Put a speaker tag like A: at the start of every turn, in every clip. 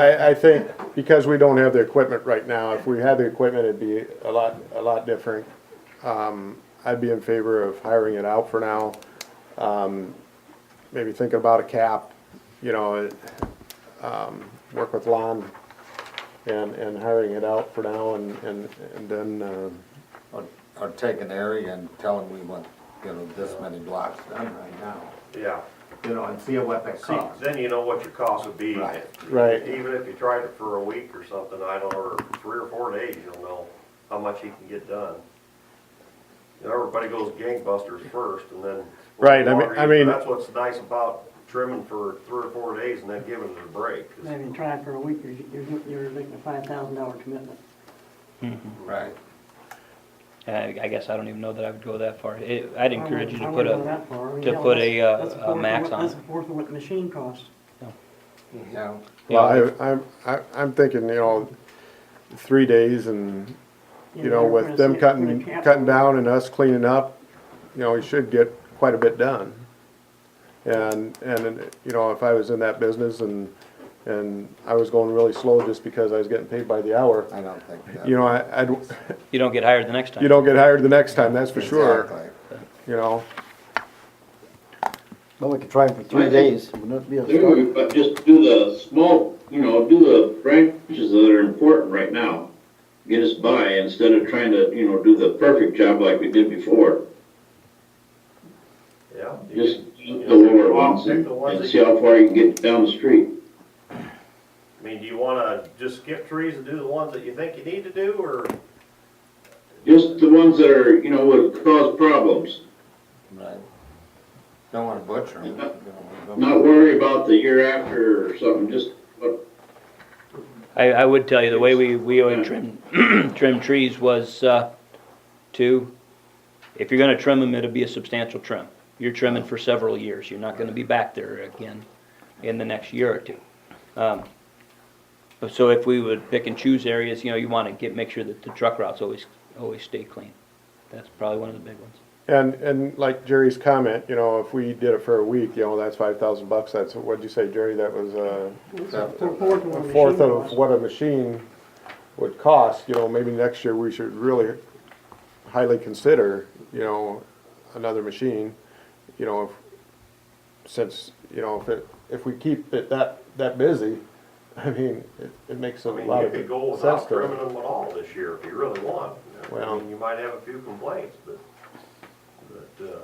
A: I, I think because we don't have the equipment right now, if we had the equipment, it'd be a lot, a lot different. Um, I'd be in favor of hiring it out for now. Um, maybe thinking about a cap, you know, it, um, work with Lon and, and hiring it out for now and, and, and then, um,
B: Or, or take an area and tell them we want, you know, this many blocks done right now,
C: Yeah,
B: you know, and see what that
C: see,
B: costs.
C: then you know what your cost would be.
B: Right.
A: Right.
C: Even if you tried it for a week or something, I don't know, or three or four days, you'll know how much you can get done. You know, everybody goes gangbusters first and then.
A: Right, I mean- I mean-
C: That's what's nice about trimming for three or four days and then giving it a break.
D: Maybe trying for a week, you're, you're- you're making a five thousand dollar commitment.
B: Right.
E: I, I guess I don't even know that I would go that far. It, I'd encourage you
D: I
E: to put
D: wouldn't go
E: a,
D: that far. I mean,
E: to
D: hell,
E: put
D: that's-
E: a, uh,
D: that's
E: a
D: fourth of
E: max
D: what-
E: on
D: That's
E: it.
D: a fourth of what the machine costs.
B: Yeah,
E: you know,
A: well, I, I'm, I- I'm thinking, you know, three days and you know,
D: we're
A: with
D: gonna
A: them
D: see-
A: cutting,
D: we're gonna cap-
A: cutting down and us cleaning up, you know, we should get quite a bit done. And, and, you know, if I was in that business and, and I was going really slow just because I was getting paid by the hour,
B: I don't think that.
A: you know, I, I'd,
E: you don't get hired the next time.
A: you don't get hired the next time, that's for sure,
B: Exactly.
A: you know?
F: Well, we could try it for three days, wouldn't that be a start?
G: Do, but just do the small, you know, do the branches that are important right now. Get us by instead of trying to, you know, do the perfect job like we did before.
C: Yeah. you
G: Just
C: can-
G: do the lower ones and, and see how far you can get down the street.
C: I mean, do you wanna just skip trees and do the ones that you think you need to do or?
G: Just the ones that are, you know, would cause problems.
B: Right. Don't wanna butcher them.
G: Not worry about the year after or something, just what,
E: I, I would tell you, the way we, we always trim, trim trees was, uh, to, if you're gonna trim them, it'll be a substantial trim. You're trimming for several years, you're not gonna be back there again in the next year or two. Um, but So if we would pick and choose areas, you know, you wanna get, make sure that the truck routes always, always stay clean. That's probably one of the big ones.
A: And, and like Jerry's comment, you know, if we did it for a week, you know, that's five thousand bucks, that's, what'd you say, Jerry, that was, uh,
D: It's a fourth of what
A: a
D: the
A: fourth
D: machine
A: of
D: costs.
A: what a machine would cost, you know, maybe next year we should really highly consider, you know, another machine, you know, if- since, you know, if it, if we keep it that, that busy, I mean, it, it makes a
C: I mean,
A: lot
C: you
A: of
C: could go
A: sense
C: without
A: to
C: trimming
A: it.
C: them at all this year if you really want. I
A: Well-
C: mean, you might have a few complaints, but, but, uh,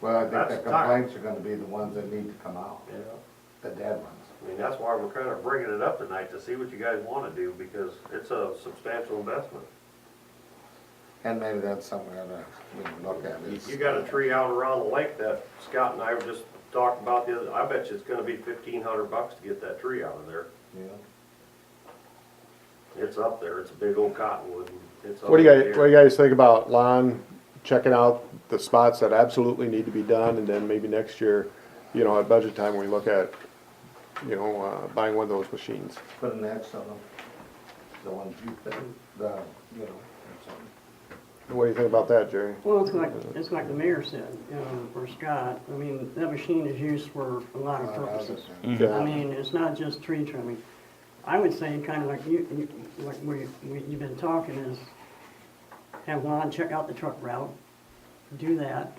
B: Well, I think the
C: That's time.
B: complaints are gonna be the ones that need to come out,
C: yeah.
B: the dead ones.
C: I mean, that's why we're kind of bringing it up tonight to see what you guys want to do because it's a substantial investment.
B: And maybe that's something we oughta, you know, look at.
C: You-
B: is-
C: You got a tree out around the lake that Scott and I were just talking about the other, I bet you it's gonna be fifteen hundred bucks to get that tree out of there.
B: Yeah.
C: It's up there, it's a big old cottonwood and it's. up
A: What do you
C: there.
A: guys, what do you guys think about lawn, checking out the spots that absolutely need to be done, and then maybe next year, you know, at budget time, we look at, you know, uh, buying one of those machines?
B: Put an X on them, the ones you think, the, you know, or something.
A: What do you think about that, Jerry?
D: Well, it's like, it's like the mayor said, you know, or Scott, I mean, that machine is used for a lot of
B: Uh,
D: purposes.
A: Yeah.
D: I mean, it's not just tree trimming. I would say, kind of like you, you- like we, we, you've been talking is, have Lon check out the truck route, do that.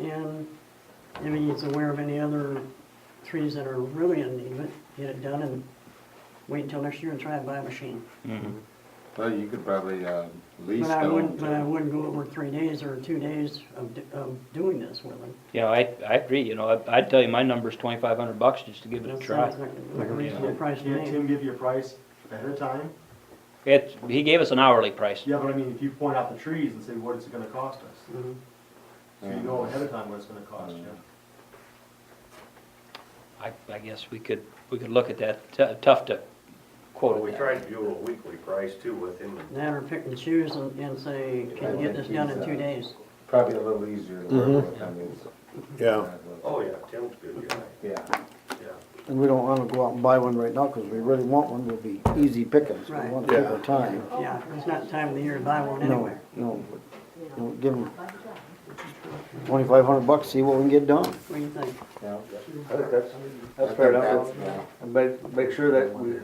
D: And if he's aware of any other trees that are really in need, of it, get it done and wait until next year and try and buy a machine.
B: Well, you could probably, uh, lease
D: But I
B: them.
D: wouldn't, but I
B: to-
D: wouldn't go over three days or two days of, d- of doing this with him.
E: You know, I, I agree, you know, I- I'd tell you my number's twenty-five hundred bucks just to give it a
D: That
E: try.
D: sounds like like a reasonable price to
H: Can't Tim
D: me.
H: give you a price ahead of time?
E: It, he gave us an hourly price.
H: Yeah, but I mean, if you point out the trees and say, what is it gonna cost us?
D: Mm-hmm.
H: So you know ahead of time what it's gonna cost you.
E: I, I guess we could, we could look at that, T- tough to quote
C: Well, we
E: it that.
C: tried to do a weekly price too with him and
D: That or pick and choose and, and say, can you get this done in two days?
B: Probably a little easier to work with, I mean.
A: Yeah.
C: Oh, yeah, Tim's a good guy,
B: Yeah,
C: yeah.
F: And we don't wanna go out and buy one right now, cause we really want one, will be easy pickings, we
D: Right.
F: wanna take our time.
D: Yeah, it's not the time of the year to buy one
F: No,
D: anyway.
F: no, no, give them, twenty-five hundred bucks, see what we can get done.
D: What do you think?
I: Yeah.
B: I think that's,
I: I
B: that's
I: think
B: fair enough.
I: that's- yeah.
B: But make sure that we